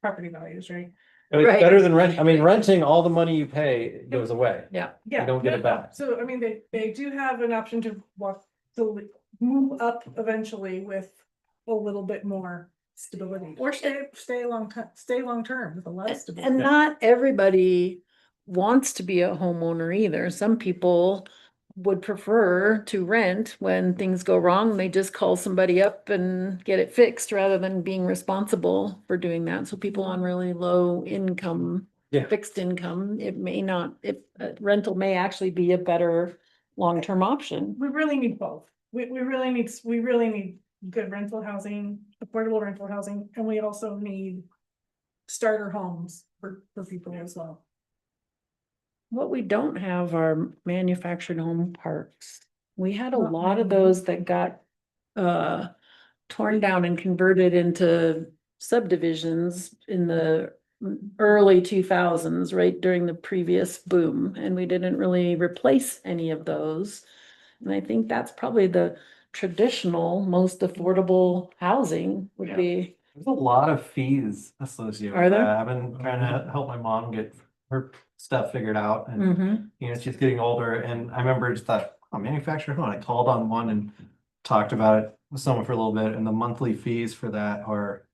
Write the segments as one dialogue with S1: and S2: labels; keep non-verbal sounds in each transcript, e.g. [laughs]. S1: property values, right?
S2: I mean,
S3: Right.
S2: It's better than rent, I mean, renting, all the money you pay goes away.
S1: Yeah.
S2: don't get
S1: no, no.
S2: it back.
S1: So I mean, they, they do have an option to walk, to move up eventually with a little bit more stability or stay, stay long, ti- stay long term with a lot of
S3: And-
S1: stability.
S3: And not everybody wants to be a homeowner either. Some people would prefer to rent when things go wrong. They just call somebody up and get it fixed rather than being responsible for doing that. So people on really low income,
S2: Yeah.
S3: fixed income, it may not, it, uh, rental may actually be a better long-term option.
S1: We really need both. We, we really need, s- we really need good rental housing, affordable rental housing, and we also need starter homes for, for people as well.
S3: What we don't have are manufactured home parks. We had a
S1: Not
S3: lot of
S1: many.
S3: those that got uh torn down and converted into subdivisions in the early two thousands, right during the previous boom, and we didn't really replace any of those. And I think that's probably the traditional, most affordable housing would
S2: Yeah.
S3: be,
S2: There's a lot of fees associated
S3: Are
S2: with
S3: there?
S2: that. I've been trying to help my mom get her stuff figured out and
S3: Mhm.
S2: you know, she's getting older and I remember just thought, oh, manufactured home, I called on one and talked about it with someone for a little bit and the monthly fees for that are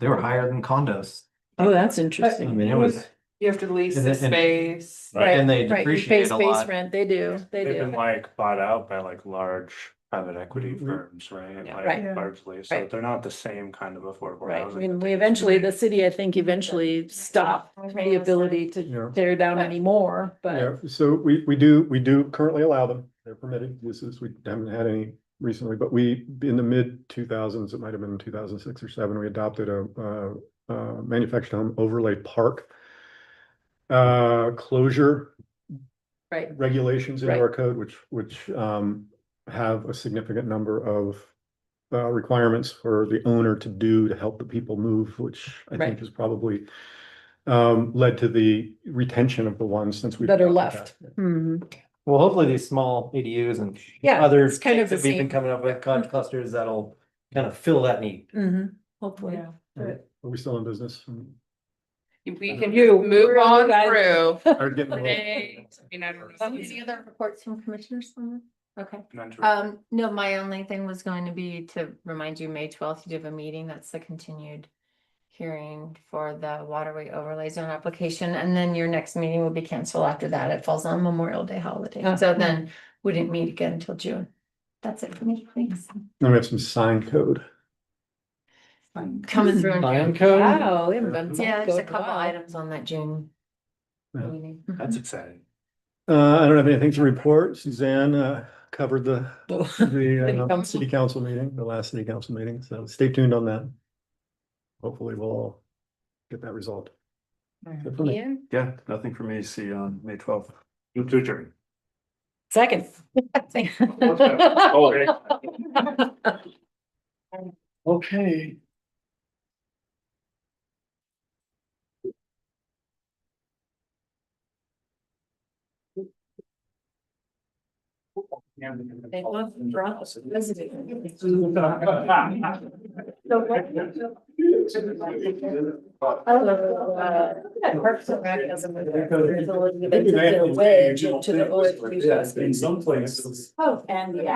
S2: they were higher than condos.
S3: oh, that's
S2: I
S3: interesting.
S2: mean, it was,
S4: You have to lease
S2: And
S4: the
S2: then- and-
S4: space.
S5: Right.
S2: and they
S3: Right, you pay
S2: depreciate a
S3: space
S2: lot.
S3: rent, they do, they
S5: They've been
S3: do,
S5: like bought out by like large private equity
S2: Mhm.
S5: firms, right?
S3: Yeah,
S5: Like,
S3: right.
S1: Yeah.
S5: Largely, so
S3: Right.
S5: they're not the same kind of affordable
S3: right, I
S5: housing.
S3: mean, we eventually, the city, I think, eventually stopped the ability to
S6: Yeah,
S3: tear down anymore,
S6: yeah,
S3: but
S6: so we, we do, we do currently allow them, they're permitted, this is, we haven't had any recently, but we, in the mid two thousands, it might have been two thousand six or seven, we adopted a, uh, uh, manufactured home overlay park uh, closure
S3: right,
S6: regulations in
S3: Right.
S6: our code, which, which, um, have a significant number of uh, requirements for the owner to do to help the people move, which I
S3: Right.
S6: think has probably um, led to the retention of the ones since we.
S3: that are left. Hmm.
S2: Well, hopefully these small ADUs and
S3: Yeah,
S2: other
S3: it's kind of
S2: things that
S3: the
S2: we've
S3: same.
S2: been coming up with, con- clusters that'll kind of fill that need.
S3: Mhm. hopefully.
S6: Are we still in business?
S3: [laughs]
S4: We can
S3: You,
S4: just move
S3: we're you
S4: on
S3: guys.
S4: through.
S6: Started getting old.
S4: Today, I mean, I don't know.
S7: Any other reports from commissioners? on that? Okay,
S5: Not
S3: Uh,
S5: to-
S7: um, no, my only thing was going to be to remind you, May twelfth, you do have a meeting, that's the continued. Hearing for the waterway overlay zone application, and then your next meeting will be canceled after that, it falls on Memorial Day holiday,
S3: Ah.
S7: so then we didn't meet again until June. That's it for me, thanks.
S6: Then we have some sign code.
S7: Coming through. in-
S2: Lion code?
S3: [laughs] Wow, we haven't been.
S7: Yeah,
S3: so
S7: just a couple
S3: wow.
S7: items on that June.
S6: Yeah.
S7: meeting. Mhm.
S5: That's exciting.
S6: Uh, I don't have anything to report. Suzanne, uh, covered the,
S3: [laughs] City
S6: the uh,
S3: council.
S6: city council meeting, the last city council meeting, so stay tuned on that. Hopefully we'll all get that resolved. Good for me.
S7: Yeah.
S5: Yeah, nothing for me, see you on May twelfth. You
S3: [laughs]
S5: too, Jerry.
S4: [laughs]
S3: Second. Oh,
S5: [laughs] Okay.
S3: They love drunk
S5: [laughs]
S3: president.
S5: uh, In some places.
S3: Oh, and the